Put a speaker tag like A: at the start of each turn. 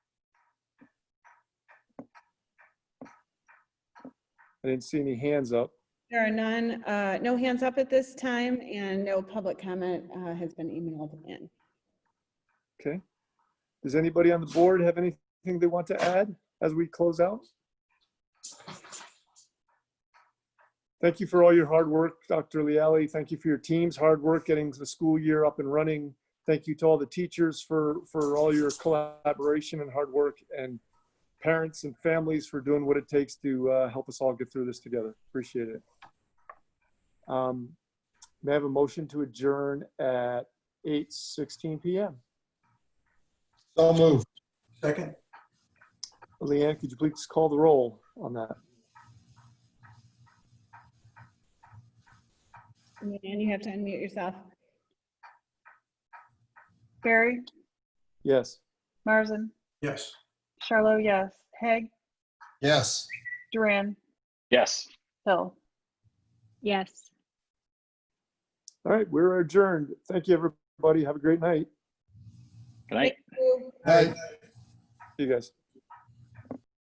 A: I didn't see any hands up.
B: There are none, uh, no hands up at this time, and no public comment uh, has been emailed in.
A: Okay. Does anybody on the board have anything they want to add as we close out? Thank you for all your hard work, Dr. Lealy. Thank you for your team's hard work getting the school year up and running. Thank you to all the teachers for, for all your collaboration and hard work and parents and families for doing what it takes to uh, help us all get through this together. Appreciate it. Um, May I have a motion to adjourn at 8:16 PM?
C: So moved. Second?
A: Leanne, could you please call the roll on that?
B: And you have to unmute yourself.
D: Barry,
A: Yes.
D: Marzen,
C: Yes.
D: Charlo, yes. Hag,
C: Yes.
D: Duran,
E: Yes.
D: Hill.
F: Yes.
A: All right, we're adjourned. Thank you, everybody. Have a great night.
E: Good night.
C: Aye.
A: See you guys.